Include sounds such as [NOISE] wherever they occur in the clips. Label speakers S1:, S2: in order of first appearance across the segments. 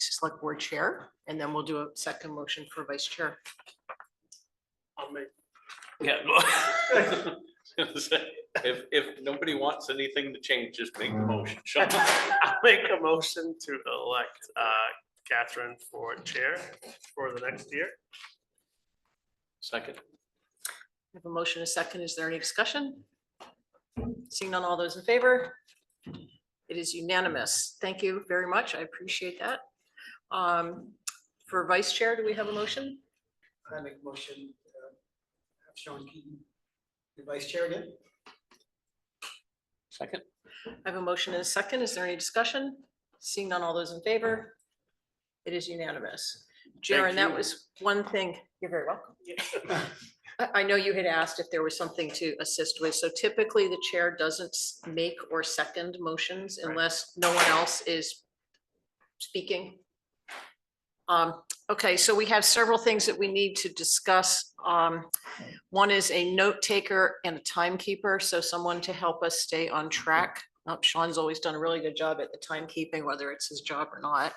S1: select board chair, and then we'll do a second motion for vice chair.
S2: I'll make,
S3: Yeah. [LAUGHS] If, if nobody wants anything to change, just make the
S4: Mm.
S3: motion. Sean.
S2: [LAUGHS] I'll make a motion to elect uh, Catherine for chair for the next year.
S3: Second.
S1: We have a motion, a second. Is there any discussion? Seeing none, all those in favor? It is unanimous. Thank you very much. I appreciate that. Um, for vice chair, do we have a motion?
S4: I make a motion, uh, have Sean Keaton, the vice chair again.
S3: Second.
S1: I have a motion and a second. Is there any discussion? Seeing none, all those in favor? It is unanimous. Jaren, that
S3: you.
S1: was one thing. You're very welcome. I, I know you had asked if there was something to assist with. So typically, the chair doesn't s- make or second motions unless no one else is speaking. Um, okay, so we have several things that we need to discuss. Um, one is a note taker and a timekeeper, so someone to help us stay on track. Uh, Sean's always done a really good job at the timekeeping, whether it's his job or not.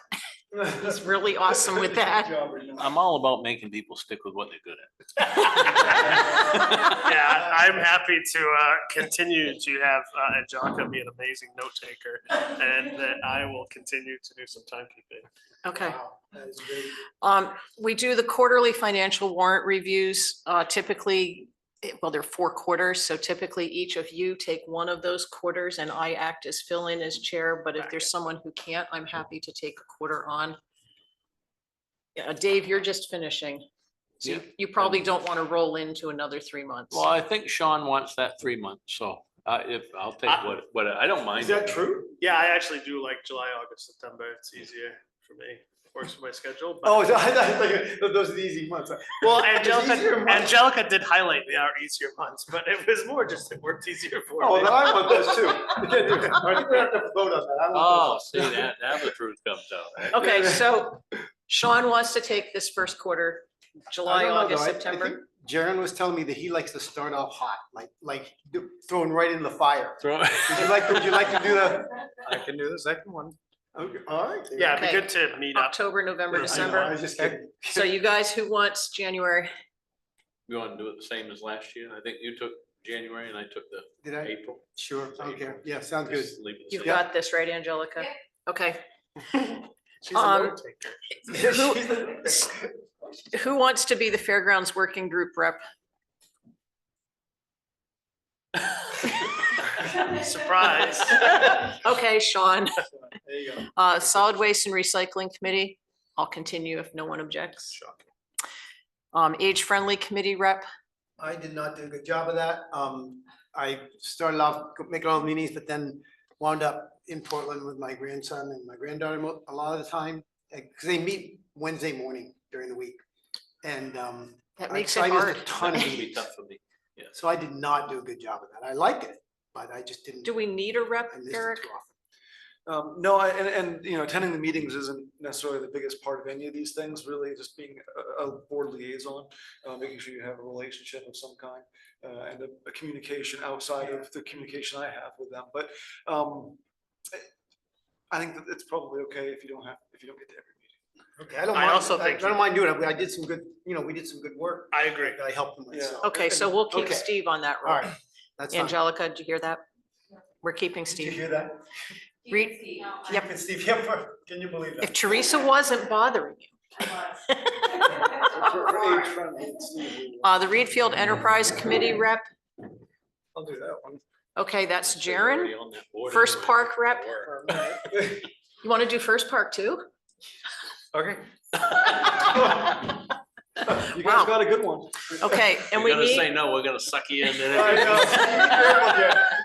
S1: He's really awesome with that.
S3: I'm all about making people stick with what they're good at.
S2: Yeah, I'm happy to uh, continue to have uh, Ajaka be an amazing note taker and that I will continue to do some timekeeping.
S1: [LAUGHS] Okay.
S4: Wow, That is great.
S1: Um, we do the quarterly financial warrant reviews, uh, typically, eh, well, they're four quarters, so typically each of you take one of those quarters and I act as fill-in as chair, but if there's someone who can't, I'm happy to take a quarter on. Yeah, Dave, you're just finishing. So you-
S3: Yeah.
S1: you probably don't want to roll into another three months.
S3: Well, I think Sean wants that three months, so uh, if, I'll take
S2: I-
S3: what, what, I don't mind.
S4: true?
S2: Yeah, I actually do like July, August, September. It's easier for me. Works for my schedule. but-
S4: Oh, [LAUGHS] I thought- I thought you- those are the easy months.
S2: Oh, Well,
S4: It's easier
S2: Angelica,
S4: months.
S2: Angelica did highlight the our easier months, but it was more just it worked easier for
S4: Oh,
S2: me.
S4: now I want those too. [LAUGHS] You can't do
S1: [LAUGHS]
S4: it. I think we have to vote on that. I
S3: Oh,
S4: want
S3: see, that, now the truth comes [LAUGHS] out. right?
S1: Okay, so Sean wants to take this first quarter,
S4: those. I
S1: July,
S4: don't know,
S1: August,
S4: though. I- I
S1: September.
S4: think Jaren was telling me that he likes to start off hot, like, like thrown right in the fire.
S3: Throw-
S4: Would you like, would you
S3: [LAUGHS]
S4: like to do the?
S5: I can do the second one.
S4: Okay, all right. there you
S2: Yeah,
S4: go.
S2: it'd be
S1: Okay.
S2: good to meet up.
S1: October, November,
S4: I know, I
S1: December.
S4: was just kidding.
S1: So you guys who wants January?
S3: You want to do it the same as last year? I think you took January and I took the
S4: Did I?
S3: April.
S4: Sure, okay. Yeah, sounds good.
S3: Just leave it the
S1: You've
S3: same.
S1: got this, right, Angelica? Okay,
S2: She's a note
S1: Um,
S2: taker.
S1: [LAUGHS] who wants to be the Fairgrounds Working Group rep?
S2: [LAUGHS] Surprise.
S1: Okay, Sean,
S4: [LAUGHS] There you go.
S1: [LAUGHS] uh, Solid Waste and Recycling Committee, I'll continue if no one objects. Um, Age Friendly Committee rep,
S4: [LAUGHS] I did not do a good job of that. Um, I started off making all the meetings, but then wound up in Portland with my grandson and my granddaughter mo- a lot of the time. Because they meet Wednesday morning during the week. And um,
S1: that
S4: I-
S1: makes it
S4: so I missed a
S1: hard.
S4: ton of
S3: It's gonna be
S4: meetings.
S3: tough for me.
S4: So I did not do a good job of that. I liked it, but I just didn't.
S1: Do we need a rep,
S4: I missed it
S1: Eric?
S4: too often.
S5: Um, no, I- and, and, you know, attending the meetings isn't necessarily the biggest part of any of these things, really, just being a, a board liaison, uh, making sure you have a relationship of some kind, uh, and a, a communication outside of the communication I have with them, but, um, I think that it's probably okay if you don't have, if you don't get to every meeting.
S4: Okay, I don't
S2: I
S4: mind,
S2: also
S4: I I
S2: think you-
S4: don't mind doing it. I did some good, you know, we did some good work.
S2: I agree.
S4: I helped them
S5: Yeah.
S4: myself.
S1: Okay, so we'll keep
S4: Okay.
S1: Steve on that
S4: All
S1: role.
S4: right, that's fine.
S1: Angelica, did you hear that? We're keeping
S4: Did you
S1: Steve.
S4: hear that?
S6: You
S1: Read-
S6: can see how I
S1: Yep.
S4: It's Steve Hipper. Can you believe
S1: If
S4: that?
S1: Teresa wasn't bothering you.
S4: For- for age
S6: was.
S4: friendly, it's Steve.
S1: Uh, the Reedfield Enterprise Committee rep,
S5: I'll do that one.
S1: okay, that's
S3: So you're already
S1: Jaren.
S3: on that board
S1: First
S3: anyway.
S1: Park
S4: [LAUGHS]
S1: rep.
S3: Work.
S1: You want to do first park too?
S5: Okay. [LAUGHS] You
S1: Wow.
S5: guys got a good [LAUGHS] one.
S1: Okay, and we
S3: You're gonna say
S1: need,
S3: no, we're gonna suck you in.
S4: [LAUGHS] I know.
S5: uh, [LAUGHS]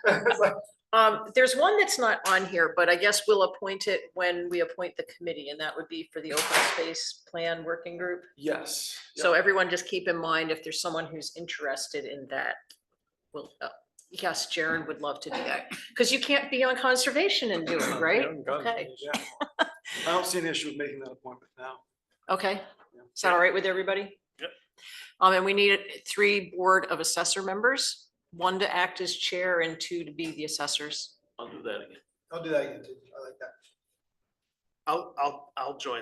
S1: um, there's one that's not on here, but I guess we'll appoint it when we appoint the committee, and that would be for the open space plan working group.
S5: Yes.
S1: So everyone just keep in mind, if there's someone who's interested in that, well, uh, yes, Jaren would love to do that, because you can't be on conservation and do it, right? Okay,
S5: Yeah.
S1: [LAUGHS]
S5: I don't see an issue with making that appointment now.
S1: okay, is that all right with everybody?
S2: Yep.
S1: Um, and we need three board of assessor members, one to act as chair and two to be the assessors.
S3: I'll do that again.
S4: I'll do that again, too. I like that.
S2: I'll, I'll, I'll join